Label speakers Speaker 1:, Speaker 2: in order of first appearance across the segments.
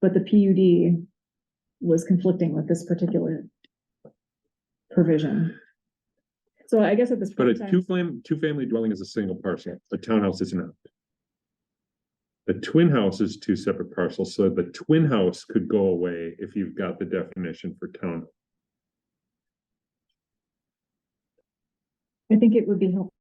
Speaker 1: But the PUD was conflicting with this particular provision. So I guess at this.
Speaker 2: But
Speaker 1: point in
Speaker 2: a
Speaker 1: time-
Speaker 2: two fam- two family dwelling is a single parcel, a townhouse is not. The twin house is two separate parcels, so the twin house could go away if you've got the definition for town.
Speaker 1: I think it would be helpful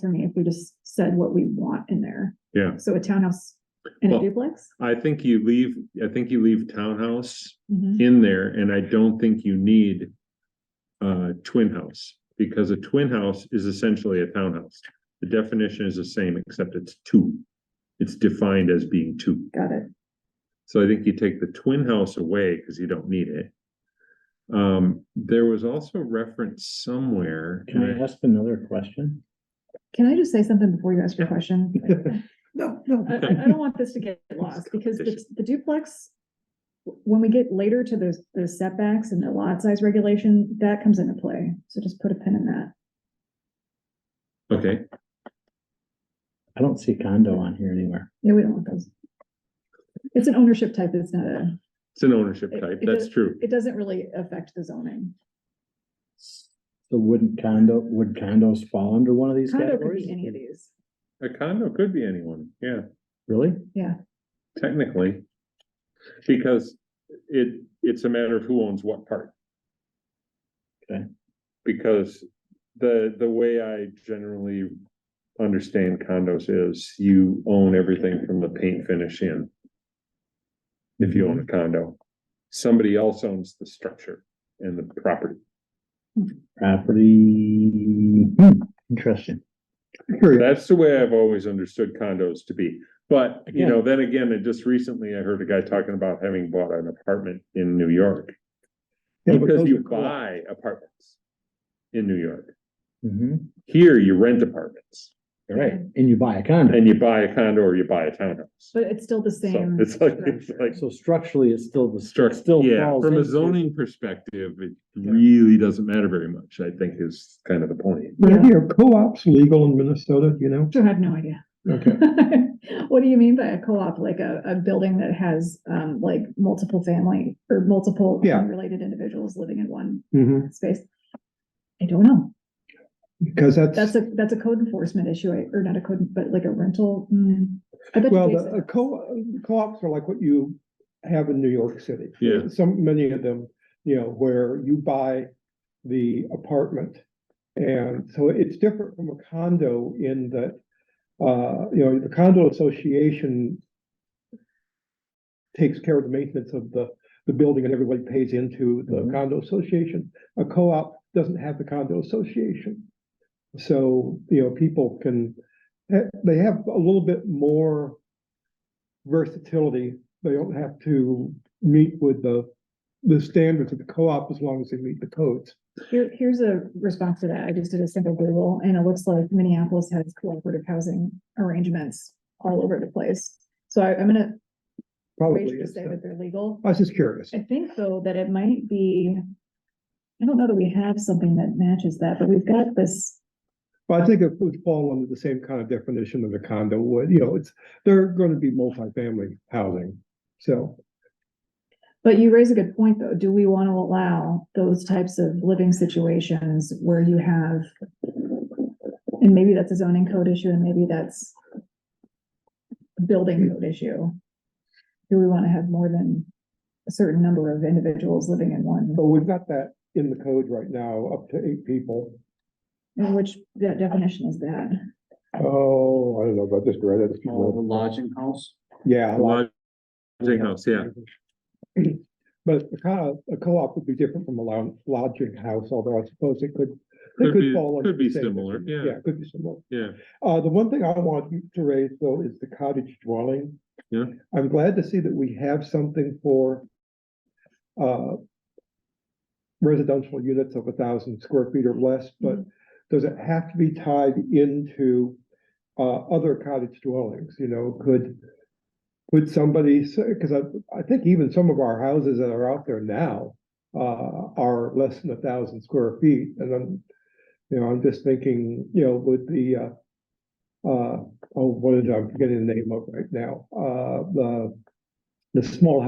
Speaker 1: for me if we just said what we want in there.
Speaker 2: Yeah.
Speaker 1: So a townhouse and a
Speaker 2: Well-
Speaker 1: duplex?
Speaker 2: I think you leave, I think you leave townhouse
Speaker 1: Mhm.
Speaker 2: in there, and I don't think you need. Uh, twin house, because a twin house is essentially a townhouse. The definition is the same, except it's two. It's defined as being two.
Speaker 1: Got it.
Speaker 2: So I think you take the twin house away because you don't need it. Um, there was also reference somewhere.
Speaker 3: Can I ask another question?
Speaker 1: Can I just say something before you ask your
Speaker 2: Yeah.
Speaker 1: question?
Speaker 3: No, no.
Speaker 1: I, I I don't want this to get lost because the the duplex, when we get later to the, the setbacks and the lot size regulation, that comes into play. So just put a pin in that.
Speaker 2: Okay,
Speaker 3: I don't see condo on here anywhere.
Speaker 1: Yeah, we don't want those. It's an ownership type. It's not a,
Speaker 2: it's an ownership
Speaker 1: It-
Speaker 2: type.
Speaker 1: it
Speaker 2: That's
Speaker 1: does-
Speaker 2: true.
Speaker 1: it doesn't really affect the zoning.
Speaker 3: So wouldn't condo, would condos fall under one of these
Speaker 1: Condo could be any of
Speaker 3: categories?
Speaker 1: these.
Speaker 2: A condo could be anyone. Yeah,
Speaker 3: Really?
Speaker 2: technically. Because it, it's a matter of who owns what part.
Speaker 3: Okay.
Speaker 2: Because the, the way I generally understand condos is you own everything from the paint finish in. if you own a
Speaker 3: Mm-hmm.
Speaker 2: condo. Somebody else owns the structure and the property.
Speaker 3: Property, hmm, interesting. Curious.
Speaker 2: That's the way I've always understood condos to be. But, you know, then again, and just recently I heard a guy talking about having bought an apartment in New York.
Speaker 3: Yeah, but
Speaker 2: Because
Speaker 3: those
Speaker 2: you
Speaker 3: are co-op.
Speaker 2: buy apartments in New York.
Speaker 3: Mhm.
Speaker 2: Here you rent apartments
Speaker 3: All right, and you buy a condo.
Speaker 2: and you buy a condo or you buy a townhouse. So
Speaker 1: But it's still the same.
Speaker 2: it's like, it's
Speaker 1: structure.
Speaker 2: like.
Speaker 3: So structurally, it's still the, it
Speaker 2: Structure,
Speaker 3: still
Speaker 2: yeah,
Speaker 3: falls
Speaker 2: from a
Speaker 3: into-
Speaker 2: zoning perspective, it really doesn't matter very much, I think is kind of the point.
Speaker 4: But
Speaker 1: Yeah.
Speaker 4: are co-ops legal in Minnesota, do you know?
Speaker 1: I have no idea.
Speaker 4: Okay.
Speaker 1: What do you mean by a co-op? Like a, a building that has, um, like multiple family or multiple
Speaker 4: Yeah.
Speaker 1: related individuals living in one
Speaker 4: hmm
Speaker 1: space? I don't know.
Speaker 4: because
Speaker 1: That's
Speaker 4: that's,
Speaker 1: a, that's a code enforcement issue, I- or not a code, but like a rental. mm. I bet you
Speaker 4: well,
Speaker 1: Jason-
Speaker 4: the uh, co, co-ops are like what you have in New York City.
Speaker 2: Yeah.
Speaker 4: Some, many of them, you know, where you buy the apartment. And so it's different from a condo in that, uh, you know, the condo association takes care of the maintenance of the, the building and everybody pays into the
Speaker 3: Mhm.
Speaker 4: condo association. A co-op doesn't have the condo association. So, you know, people can, eh, they have a little bit more versatility. They don't have to meet with the, the standards of the co-op as long as they meet the codes.
Speaker 1: Here, here's a response to that. I just did a simple Google and it looks like Minneapolis has cooperative housing arrangements all over the place. So I, I'm gonna
Speaker 4: Probably.
Speaker 1: wager to
Speaker 4: is
Speaker 1: say
Speaker 4: the-
Speaker 1: that they're legal.
Speaker 4: I was just curious.
Speaker 1: I think though that it might be, I don't know that we have something that matches that, but we've got this,
Speaker 4: But I think it would fall under the same kind of definition that a condo would, you know, it's, they're going to be multifamily housing. So,
Speaker 1: but you raise a good point though. Do we want to allow those types of living situations where you have, and maybe that's a zoning code issue and maybe that's a building code issue. Do we want to have more than a certain number of individuals living in one,
Speaker 4: but we've got that in the code right now, up to eight people.
Speaker 1: And which that definition is that?
Speaker 4: Oh, I don't know, but I just read it.
Speaker 5: Oh, the lodging house?
Speaker 4: Yeah.
Speaker 2: Lodging house, yeah.
Speaker 4: But a co- a co-op would be different from a lou- lodging house, although I suppose it could,
Speaker 2: Could
Speaker 4: it
Speaker 2: be-
Speaker 4: could fall. under
Speaker 2: could be
Speaker 4: the same
Speaker 2: similar,
Speaker 4: definition.
Speaker 2: yeah.
Speaker 4: Yeah, it could be similar.
Speaker 2: Yeah.
Speaker 4: Uh, the one thing I want you to raise though is the cottage dwelling.
Speaker 2: Yeah.
Speaker 4: I'm glad to see that we have something for uh residential units of a thousand square feet or less, but does it have to be tied into uh other cottage dwellings, you know, could could somebody say, because I I think even some of our houses that are out there now uh are less than a thousand square feet, and I'm you know, I'm just thinking, you know, with the uh uh, oh, what is, it? I'm forgetting the name of it right now, uh, the, the small